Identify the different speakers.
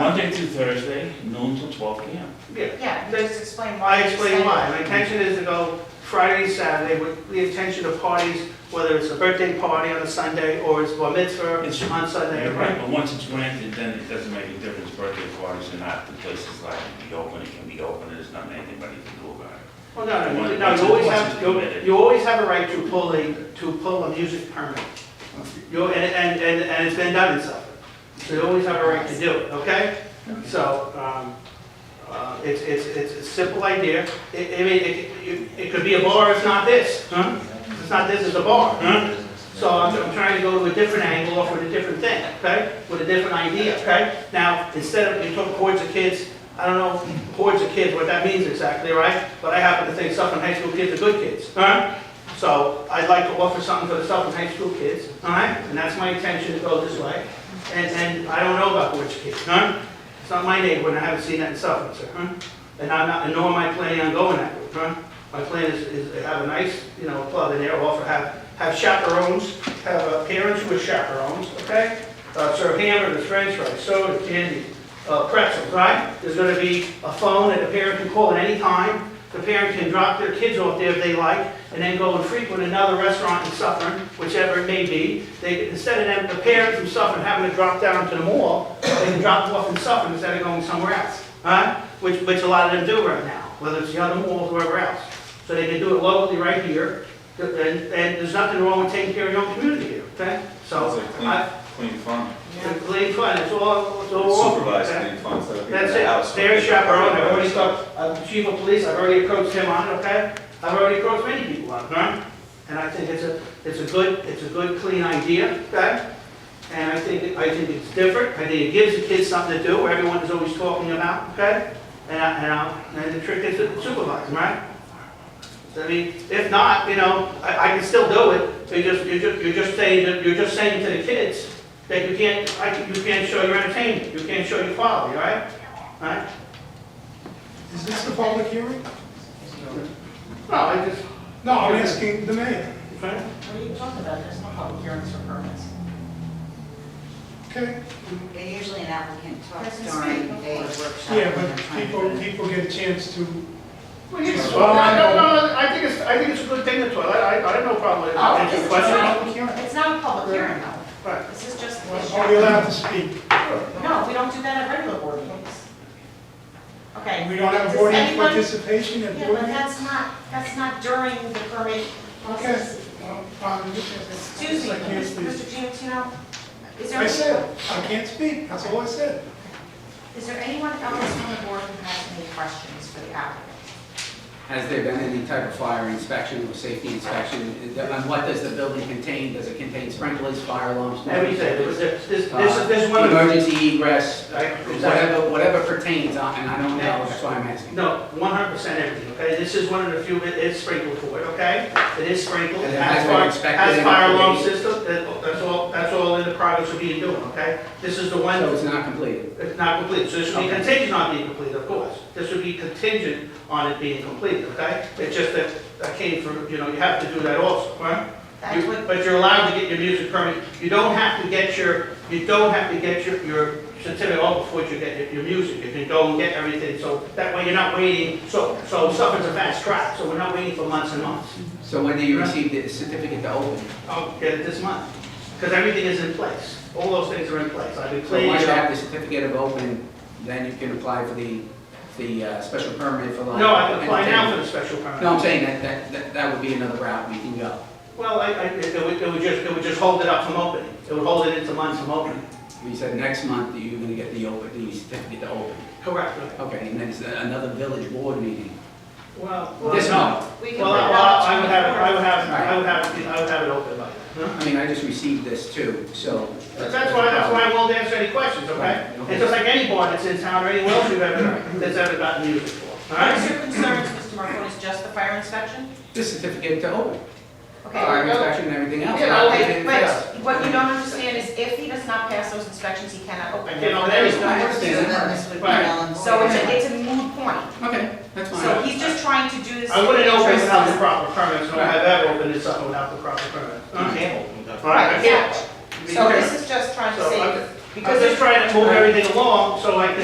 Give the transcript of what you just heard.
Speaker 1: Monday through Thursday, noon till twelve PM.
Speaker 2: Yeah,
Speaker 3: Yeah, you just explain why.
Speaker 2: I
Speaker 3: you
Speaker 2: explain
Speaker 3: said-
Speaker 2: why. My intention is to go Friday, Saturday with the intention of parties, whether it's a birthday party on a Sunday or it's bar mitzvah
Speaker 1: It's-
Speaker 2: on Sunday.
Speaker 1: You're right, but once it's granted, then it doesn't make a difference, birthday parties or not, the place is likely to be open, it can be open, and there's nothing anybody can do about it.
Speaker 2: Well, no, no,
Speaker 1: Once-
Speaker 2: no,
Speaker 1: once
Speaker 2: you always
Speaker 1: it's
Speaker 2: have, you-
Speaker 1: permitted.
Speaker 2: you always have a right to pull a, to pull a music permit. You, and, and, and and it's been done in Suffolk. So you always have a right to do it, okay? So, um, uh, it's, it's, it's a simple idea. It, I mean, it, it- it could be a bar, it's not this, huh? It's not this, it's a bar, huh? So I'm, I'm trying to go to a different angle, off with a different thing, okay? With a different idea, okay? Now, instead of, you took hordes of kids, I don't know hordes of kids, what that means exactly, right? But I happen to think Suffolk high school kids are good kids, huh? So I'd like to offer something for the Suffolk high school kids, all right? And that's my intention to go this way. And, and I don't know about hordes of kids, huh? It's not my neighborhood, and I haven't seen that in Suffolk, sir, huh? And I'm not, and nor am I planning on going that route, huh? My plan is, is to have a nice, you know, club in there, offer, have, have chaperones, have uh, parents with chaperones, okay? Uh, serve hamburgers, french fries, soda, candy, uh, pretzels, right? There's gonna be a phone that the parent can call at any time. The parent can drop their kids off there if they like, and then go and frequent another restaurant in Suffern, whichever it may be. They, instead of them, the parents from Suffern having to drop down to the mall, they can drop them off in Suffern instead of going somewhere else, right? Which, which a lot of them do right now, whether it's the other malls or wherever else. So they can do it locally right here, and, and there's nothing wrong with taking care of your own community here, okay?
Speaker 4: Sounds
Speaker 2: So,
Speaker 4: like clean,
Speaker 2: I,
Speaker 4: clean fun.
Speaker 3: Yeah.
Speaker 2: clean fun, it's all, it's all. wrong,
Speaker 4: Supervised
Speaker 2: okay?
Speaker 4: clean fun, so people in the
Speaker 2: That's
Speaker 4: house.
Speaker 2: it, they're chaperone, I've already
Speaker 4: stuff.
Speaker 2: talked, uh, chief of police, I've already approached him on it, okay? I've already approached many people on it, right? And I think it's a, it's a good, it's a good, clean idea, okay? And I think, I think it's different, I think it gives the kids something to do, where everyone is always talking about, okay? And I, and I, and the trick is to supervise, them, right? I mean, if not, you know, I, I can still do it, but you're just, you're just, you're just saying, that- you're just saying to the kids that you can't, I, you can't show your entertainment, you can't show your quality, all right? All right?
Speaker 5: Is this the public hearing?
Speaker 2: No, I just,
Speaker 5: No, I'm asking the mayor.
Speaker 2: okay.
Speaker 3: What are you talking about? There's no public hearings for permits.
Speaker 5: Okay,
Speaker 6: And usually an applicant talks
Speaker 3: Doesn't
Speaker 6: during
Speaker 3: speak, of
Speaker 6: a
Speaker 3: course.
Speaker 6: workshop.
Speaker 5: yeah,
Speaker 6: when they're
Speaker 5: but
Speaker 6: trying to
Speaker 5: people,
Speaker 6: put in-
Speaker 5: people get a chance to,
Speaker 2: Well, you
Speaker 5: It's
Speaker 2: can- well, I don't,
Speaker 5: fine.
Speaker 2: no, no, I think it's, I think it's a good thing to toilet, I, I have no problem with it.
Speaker 3: Oh,
Speaker 2: Answer
Speaker 3: it's
Speaker 2: your question.
Speaker 3: fine.
Speaker 5: public hearing.
Speaker 3: It's not a public hearing though.
Speaker 2: Right.
Speaker 3: This is just.
Speaker 5: Are we allowed to speak?
Speaker 3: No, we don't do that at regular board meetings. Okay.
Speaker 5: We don't have
Speaker 3: does
Speaker 5: board
Speaker 3: anyone-
Speaker 5: participation at
Speaker 3: Yeah,
Speaker 5: board
Speaker 3: but
Speaker 5: meetings?
Speaker 3: that's not, that's not during the permit
Speaker 5: Okay.
Speaker 3: process.
Speaker 5: Well, um,
Speaker 3: Excuse me,
Speaker 5: I can't
Speaker 3: Mr.
Speaker 5: speak.
Speaker 3: Giantino, is there?
Speaker 5: I said, I can't speak, that's all I said.
Speaker 3: Is there anyone else on the board who has any questions for the applicant?
Speaker 7: Has there been any type of fire inspection or safety inspection? And what does the building contain? Does it contain sprinklers, fire alarms?
Speaker 2: Everything, This- this, this, this
Speaker 7: Uh,
Speaker 2: is, this is one of. the-
Speaker 7: Emergency egress,
Speaker 2: Right, exactly.
Speaker 7: whatever, whatever pertains, uh, and I don't know, that's why I'm asking.
Speaker 2: No, one hundred percent everything, okay? This is one of the few, it is sprinkled for it, okay? It is sprinkled,
Speaker 7: And
Speaker 2: it
Speaker 7: it
Speaker 2: has
Speaker 7: has been
Speaker 2: fire,
Speaker 7: inspected
Speaker 2: has
Speaker 7: and
Speaker 2: fire alarm
Speaker 7: updated.
Speaker 2: system, that- that's all, that's all in the progress of being doing, okay? This is the one.
Speaker 7: So it's not completed.
Speaker 2: It's not complete, so this would be
Speaker 7: Okay.
Speaker 2: contingent on being complete, of course. This would be contingent on it being completed, okay? It's just that I came from, you know, you have to do that also, right?
Speaker 3: That's
Speaker 2: You-
Speaker 3: what,
Speaker 2: But you're allowed to get your music permit, you don't have to get your, you don't have to get your, your certificate off before you get your- your music. You can go and get everything, so that way you're not waiting, so, so something's a fast track, so we're not waiting for months and months.
Speaker 7: So when do you receive the certificate to open?
Speaker 2: I'll get it this month, because everything is in place, all those things are in place, I've been
Speaker 7: So
Speaker 2: cleaning
Speaker 7: once
Speaker 2: it
Speaker 7: you
Speaker 2: up.
Speaker 7: have the certificate of open, then you can apply for the, the uh, special permit for like.
Speaker 2: No, I can apply now for the special permit.
Speaker 7: No, I'm saying that, that- that, that would be another route we can go.
Speaker 2: Well, I, I, it would, it would just, it would just hold it up from opening. It would hold it into months from opening.
Speaker 7: You said next month that you're gonna get the open, the certificate to open.
Speaker 2: Correct.
Speaker 7: Okay, and then it's another village board meeting.
Speaker 2: Well.
Speaker 7: This month,
Speaker 3: we can.
Speaker 2: Well,
Speaker 3: put
Speaker 2: I,
Speaker 3: it
Speaker 2: well,
Speaker 3: out
Speaker 2: I
Speaker 3: to
Speaker 2: would
Speaker 3: the
Speaker 2: have, it- I would
Speaker 3: board.
Speaker 2: have, I would have, it- I would have it open by then.
Speaker 7: I mean, I just received this too, so.
Speaker 2: That's why, that's why I won't answer any questions, okay?
Speaker 7: Right, okay.
Speaker 2: It's just like any bar that's in town or anyone else you've ever, that's ever gotten music for, all
Speaker 3: What is
Speaker 2: right?
Speaker 3: your concerns, Mr. Marcone, is just the fire inspection?
Speaker 7: This certificate to open,
Speaker 3: Okay.
Speaker 7: fire
Speaker 3: no-
Speaker 7: inspection and everything else.
Speaker 3: Yeah,
Speaker 7: not
Speaker 3: okay,
Speaker 7: anything else.
Speaker 3: but what you don't understand is if he does not pass those inspections, he cannot open.
Speaker 2: I
Speaker 3: it.
Speaker 2: get all that.
Speaker 3: There is no
Speaker 7: I
Speaker 3: work
Speaker 7: understand
Speaker 6: So
Speaker 3: to do.
Speaker 6: then this would be
Speaker 2: Right.
Speaker 6: null and
Speaker 3: So it's
Speaker 6: void.
Speaker 3: a, it's a moot point.
Speaker 7: Okay, that's fine.
Speaker 3: So he's just trying to do this.
Speaker 2: I wouldn't
Speaker 3: in the
Speaker 2: open
Speaker 3: interest
Speaker 2: without the
Speaker 3: of-
Speaker 2: proper permits, nor have ever opened this up without the proper permits.
Speaker 7: Alright.
Speaker 2: All right, I
Speaker 3: Right,
Speaker 2: can't.
Speaker 3: exactly. So
Speaker 2: Okay.
Speaker 3: this is just trying to
Speaker 2: So I'm
Speaker 3: save,
Speaker 2: just- I'm
Speaker 3: because
Speaker 2: just trying to move everything along so I can